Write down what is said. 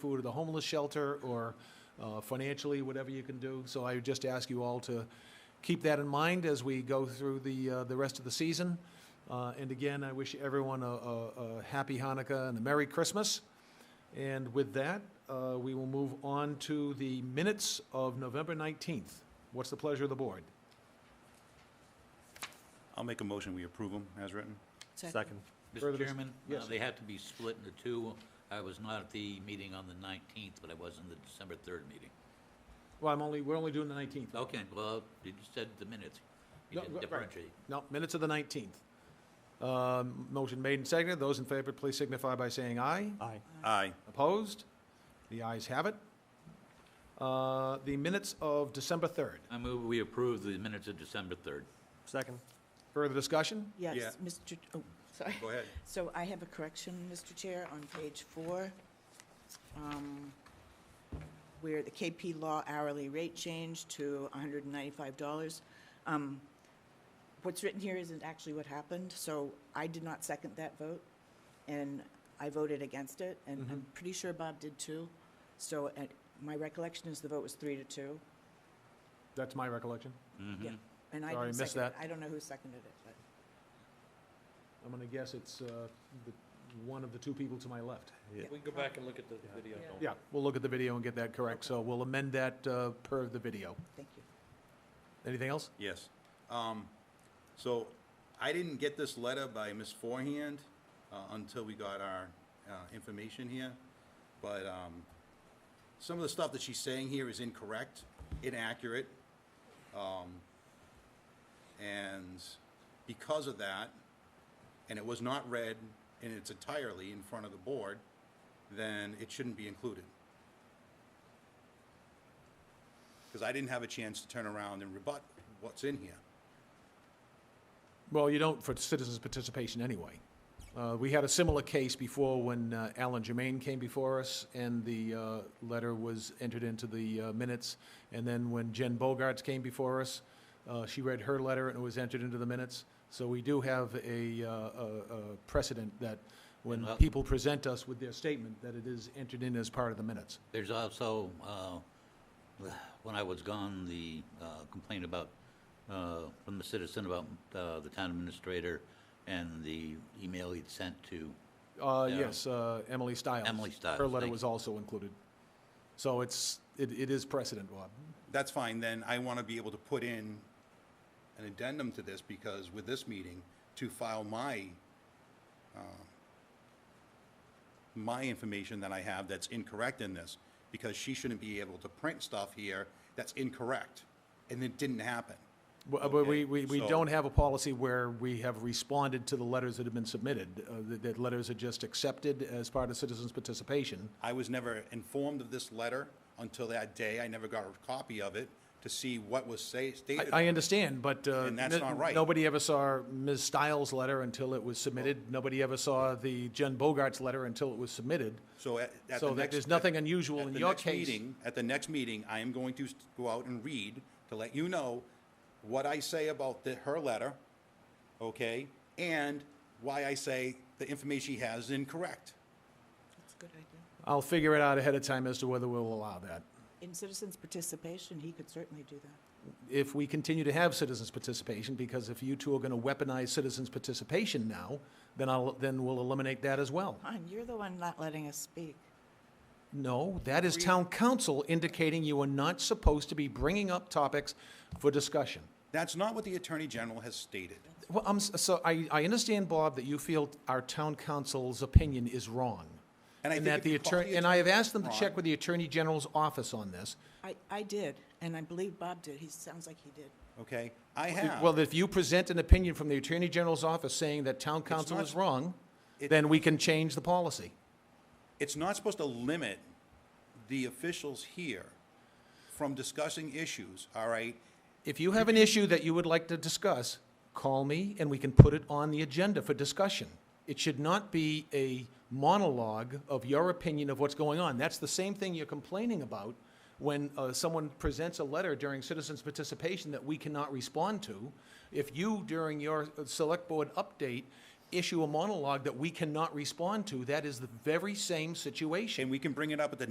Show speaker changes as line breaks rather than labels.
food or the homeless shelter or uh, financially, whatever you can do. So I would just ask you all to keep that in mind as we go through the, uh, the rest of the season. Uh, And again, I wish everyone a, a, a happy Hanukkah and a Merry Christmas. And with that, uh, we will move on to the minutes of November 19th. What's the pleasure of the board?
I'll make a motion, we approve them as written.
Second.
Further
Mr.
dis-
Chairman? uh,
yes.
They have to be split into two. I was not at the meeting on the 19th, but I was in the December 3rd meeting.
Well, I'm only, we're only doing the 19th.
Okay, well, you just said the minutes. You
No,
didn't
right.
differentiate.
No, minutes of the 19th. Um, Motion made and seconded. Those in favor, please signify by saying aye.
Aye.
Aye.
Opposed? The ayes have it. Uh, The minutes of December 3rd.
I move we approve the minutes of December 3rd.
Second.
Further discussion?
Yeah.
Yes, Mr., oh, sorry.
Go ahead.
So I have a correction, Mr. Chair, on page four, um, where the KP Law hourly rate changed to $195. Um, What's written here isn't actually what happened, so I did not second that vote, and I voted against it, and I'm
Mm-hmm.
pretty sure Bob did too. So at- my recollection is the vote was three to two.
That's my recollection.
Mm-hmm.
Yeah, And I
Sorry,
didn't
missed
second it.
that.
I don't know who seconded it, but.
I'm going to guess it's uh, the- one of the two people to my left.
We can go back and look at the video. don't we?
Yeah, we'll look at the video and get that correct. So we'll amend that uh, per the video.
Thank you.
Anything else?
Yes. Um, So I didn't get this letter by Ms. Forehand uh, until we got our uh, information here, but um, some of the stuff that she's saying here is incorrect, inaccurate. Um, And because of that, and it was not read in its entirely in front of the board, then it shouldn't be included. Because I didn't have a chance to turn around and rebut what's in here.
Well, you don't for citizens' participation anyway. Uh, We had a similar case before when uh, Alan Germain came before us, and the uh, letter was entered into the uh, minutes. And then when Jen Bogarts came before us, uh, she read her letter and it was entered into the minutes. So we do have a uh, a- a precedent that when
And, uh,
people present us with their statement, that it is entered in as part of the minutes.
There's also, uh, when I was gone, the uh, complaint about, uh, from the citizen about uh, the town administrator and the email he'd sent to,
Uh,
Yeah.
yes, uh, Emily Stiles.
Emily Stiles,
Her letter
thank
was
you.
also included. So it's, it, it is precedent, Bob.
That's fine, then I want to be able to put in an addendum to this because with this meeting, to file my, uh, my information that I have that's incorrect in this, because she shouldn't be able to print stuff here that's incorrect, and it didn't happen.
Well, uh, But we,
Okay,
we, we
so-
don't have a policy where we have responded to the letters that have been submitted, uh, that, that letters are just accepted as part of citizens' participation.
I was never informed of this letter until that day, I never got a copy of it to see what was say,
I,
stated.
I understand, but. uh,
And that's
n-
not right.
Nobody ever saw Ms. Stiles' letter until it was submitted. Nobody ever saw the Jen Bogart's letter until it was submitted.
So at, at the next.
So that there's nothing unusual
at
in
the
your
next
case.
meeting- At the next meeting, I am going to s- go out and read to let you know what I say about the, her letter, okay? And why I say the information she has is incorrect.
That's a good idea.
I'll figure it out ahead of time as to whether we'll allow that.
In citizens' participation, he could certainly do that.
if we continue to have citizens' participation, because if you two are going to weaponize citizens' participation now, then I'll, then we'll eliminate that as well.
Hon, you're the one not letting us speak.
No, that is town council indicating you are not supposed to be bringing up topics for discussion.
That's not what the Attorney General has stated.
Well, I'm, s- so I, I understand, Bob, that you feel our town council's opinion is wrong.
And I think
that
if
the
you call
attorney,
the
and I have
attorney
asked them to check
wrong-
with the Attorney General's office on this.
I, I did, and I believe Bob did. He sounds like he did.
Okay, I have.
Well, if you present an opinion from the Attorney General's office saying that town council
not-
is wrong,
it-
then we can change the policy.
it's not supposed to limit the officials here from discussing issues, all right?
If you have an issue that you would like to discuss, call me and we can put it on the agenda for discussion. It should not be a monologue of your opinion of what's going on. That's the same thing you're complaining about when uh, someone presents a letter during citizens' participation that we cannot respond to. If you, during your uh, select board update, issue a monologue that we cannot respond to, that is the very same situation.
And we can bring it up at the